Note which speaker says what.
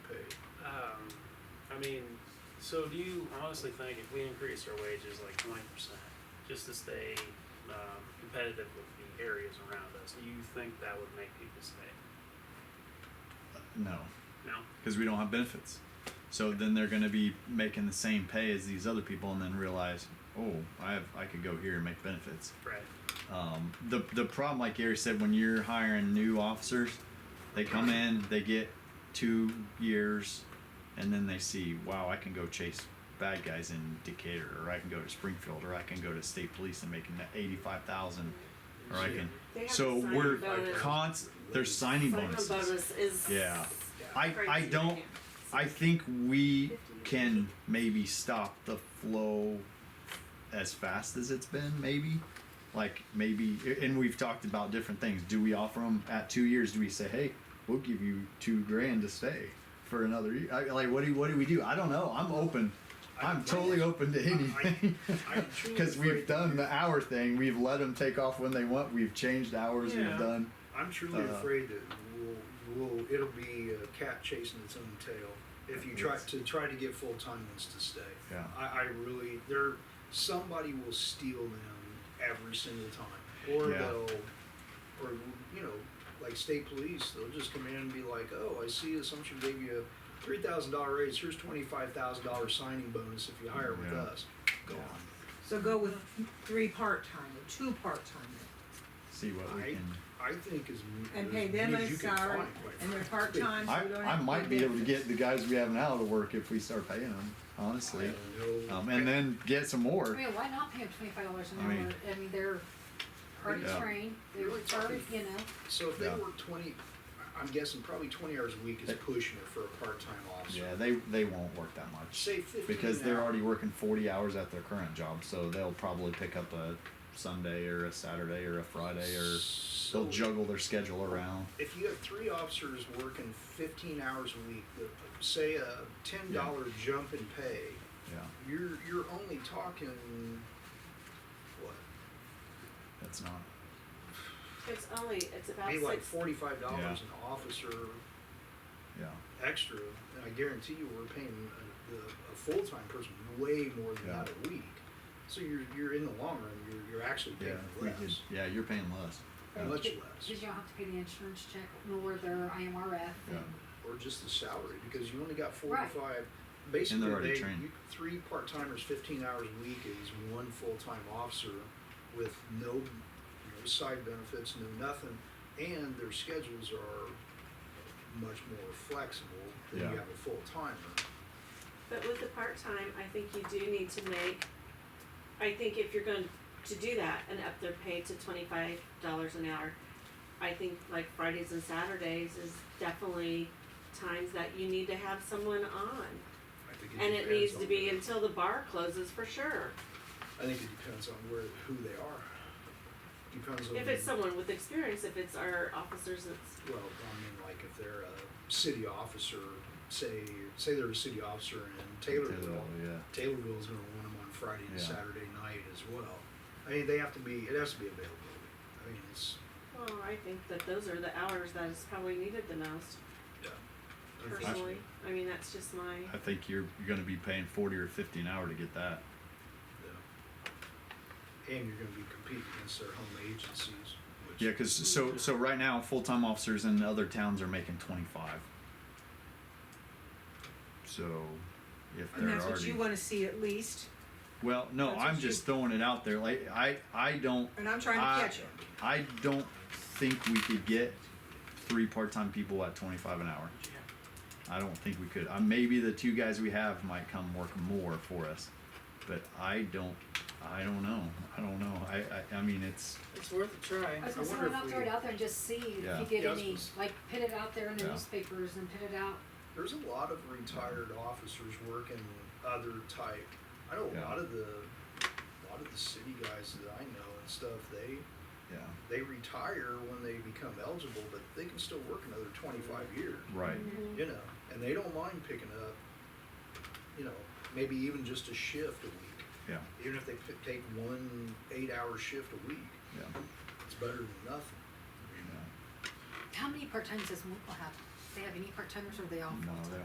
Speaker 1: Um, mean, so do you honestly think if we increase our wages like twenty percent, just to stay um, competitive with the areas around us, do you think that would make people stay?
Speaker 2: No,
Speaker 1: No.
Speaker 2: because we don't have benefits. So then they're going to be making the same pay as these other people, and then realize, oh, I have, I could go here and make benefits.
Speaker 1: Right.
Speaker 2: Um, the the problem, like Gary said, when you're hiring new officers, they come in, they get two years, and then they see, wow, I can go chase bad guys in Decatur, or I can go to Springfield, or I can go to state police and make eighty five thousand, or I can.
Speaker 3: They have
Speaker 2: So
Speaker 3: a signing
Speaker 2: we're
Speaker 3: bonus.
Speaker 2: cons. There's signing
Speaker 3: Sign-on
Speaker 2: bonuses.
Speaker 3: bonus is
Speaker 2: Yeah. I I
Speaker 3: crazy.
Speaker 2: don't. I think we can maybe stop the flow as fast as it's been, maybe. Like maybe, and we've talked about different things. Do we offer them at two years? Do we say, hey, we'll give you two grand to stay for another year? I, like, what do what do we do? I don't know. I'm open. I'm totally open to anything.
Speaker 1: I'm truly
Speaker 2: Because we've
Speaker 1: afraid-
Speaker 2: done the hour thing. We've let them take off when they want. We've changed hours.
Speaker 1: Yeah.
Speaker 2: We've done.
Speaker 4: I'm truly
Speaker 2: Uh,
Speaker 4: afraid that we'll, we'll, it'll be a cat chasing its own tail if you try
Speaker 2: Yes.
Speaker 4: to try to get full time ones to stay.
Speaker 2: Yeah.
Speaker 4: I, I really, there, somebody will steal them every single time, or
Speaker 2: Yeah.
Speaker 4: they'll, or you know, like state police, they'll just come in and be like, oh, I see Assumption gave you a three thousand dollar raise. Here's twenty five thousand dollar signing bonus if you hire with
Speaker 2: Yeah.
Speaker 4: us. Go
Speaker 2: Yeah.
Speaker 5: So go with three part-time or two part-time
Speaker 2: See what we
Speaker 4: I-
Speaker 2: can.
Speaker 4: I think as m-
Speaker 5: and
Speaker 4: as
Speaker 5: pay them
Speaker 4: many
Speaker 5: a
Speaker 4: as you can
Speaker 5: salary
Speaker 4: find, quite
Speaker 5: and they're
Speaker 4: frankly.
Speaker 5: part-time. so
Speaker 2: I,
Speaker 5: we don't
Speaker 2: I
Speaker 5: have
Speaker 2: might be able to get
Speaker 5: benefits.
Speaker 2: the guys we have now to work if we start paying them, honestly.
Speaker 4: I know.
Speaker 2: Um, and then get some
Speaker 6: I
Speaker 2: more.
Speaker 6: mean, why not pay them twenty-five dollars an
Speaker 2: I mean-
Speaker 6: hour? I mean, they're already
Speaker 2: Yeah.
Speaker 6: trained, they were
Speaker 4: Really
Speaker 6: already,
Speaker 4: tough.
Speaker 6: you know.
Speaker 4: So if they
Speaker 2: Yeah.
Speaker 4: work twenty, I- I'm guessing probably twenty hours a week is pushing it for a part-time
Speaker 2: Yeah,
Speaker 4: officer.
Speaker 2: they they won't work that much
Speaker 4: Say fifteen.
Speaker 2: because
Speaker 4: an
Speaker 2: they're
Speaker 4: hour.
Speaker 2: already working 40 hours at their current job, so they'll probably pick up a Sunday or a Saturday or a Friday or
Speaker 4: So
Speaker 2: they'll juggle their schedule around.
Speaker 4: If you have three officers working fifteen hours a week, the- say a ten dollar jump in pay,
Speaker 2: Yeah,
Speaker 4: you're, you're only talking, what?
Speaker 2: that's not.
Speaker 3: It's only, it's about
Speaker 4: Be like
Speaker 3: six,
Speaker 4: forty-five dollars
Speaker 2: Yeah.
Speaker 4: an officer
Speaker 2: Yeah,
Speaker 4: extra, and I guarantee you we're paying a, the- a full-time person way more than
Speaker 2: Yeah.
Speaker 4: that a week. So you're, you're in the long run, you're, you're actually
Speaker 2: yeah.
Speaker 4: paying
Speaker 2: if we
Speaker 4: less.
Speaker 2: could, yeah, you're paying less.
Speaker 4: How much
Speaker 6: Did
Speaker 4: less,
Speaker 6: did y'all have to pay the insurance check nor their IMRF?
Speaker 2: Yeah.
Speaker 4: or just the salary, because you only got
Speaker 6: Right.
Speaker 4: forty-five, basically,
Speaker 2: already
Speaker 4: they,
Speaker 2: trained.
Speaker 4: you, three part-timers, fifteen hours a week is one full-time officer with no, no side benefits, no nothing, and their schedules are much more flexible than you
Speaker 2: Yeah.
Speaker 4: have a full-timer.
Speaker 3: but with the part-time, I think you do need to make, I think if you're going to do that and up their pay to twenty-five dollars an hour, I think like Fridays and Saturdays is definitely times that you need to have someone on.
Speaker 4: I think
Speaker 3: And it
Speaker 4: depends
Speaker 3: needs
Speaker 4: on
Speaker 3: to be
Speaker 4: the-
Speaker 3: until the bar closes for sure.
Speaker 4: I think it depends on where, who they are. Depends on.
Speaker 3: If
Speaker 2: Mm-hmm.
Speaker 3: it's someone with experience, if it's our officers, it's,
Speaker 4: Well, I mean, like if they're a city officer, say, say they're a city officer in Taylorville,
Speaker 2: yeah.
Speaker 4: Taylorville's gonna want them on Friday and
Speaker 2: Yeah.
Speaker 4: Saturday night as well. I mean, they have to be, it has to be available. I mean, it's,
Speaker 3: well, I think that those are the hours that is probably needed the most, personally. I mean, that's just my,
Speaker 2: I think you're, you're going to be paying 40 or 50 an hour to get that.
Speaker 4: yeah. And you're gonna be competing against their home agencies, which.
Speaker 2: Yeah, because so so right now, full time officers in other towns are making twenty five. So, if
Speaker 5: And
Speaker 2: they're
Speaker 5: that's what
Speaker 2: already
Speaker 5: you wanna see at least,
Speaker 2: well, no,
Speaker 5: that's what
Speaker 2: I'm
Speaker 5: you-
Speaker 2: just throwing it out there. Like I I don't
Speaker 5: and I'm trying
Speaker 2: I-
Speaker 5: to catch it.
Speaker 2: I don't think we could get three part time people at twenty five an hour. I don't think we could. Uh, maybe the two guys we have might come work more for us, but I don't. I don't know. I don't know. I I, I mean it's
Speaker 7: It's worth a try.
Speaker 6: I was
Speaker 4: I
Speaker 6: gonna
Speaker 4: wonder
Speaker 6: say, why
Speaker 4: if
Speaker 6: not throw
Speaker 4: we-
Speaker 6: it out there and just see
Speaker 2: Yeah.
Speaker 6: if you
Speaker 4: Yeah, I
Speaker 6: get
Speaker 4: was
Speaker 6: any,
Speaker 4: gonna say-
Speaker 6: like, put it out there in the
Speaker 2: Yeah.
Speaker 6: newspapers and put it out.
Speaker 4: There's a lot of retired officers working other type. I know a
Speaker 2: Yeah.
Speaker 4: lot of the, a lot of the city guys that I know and stuff, they,
Speaker 2: yeah
Speaker 4: they retire when they become eligible, but they can still work another twenty-five years,
Speaker 2: right
Speaker 4: you know, and they don't mind picking up, you know, maybe even just a shift a week,
Speaker 2: yeah
Speaker 4: even if they p- take one eight-hour shift a week,
Speaker 2: yeah.
Speaker 4: it's better than nothing.
Speaker 2: yeah.
Speaker 6: How many part-timers does Winkle have? They have any part-timers or are they all
Speaker 2: No,
Speaker 6: full-time?
Speaker 2: they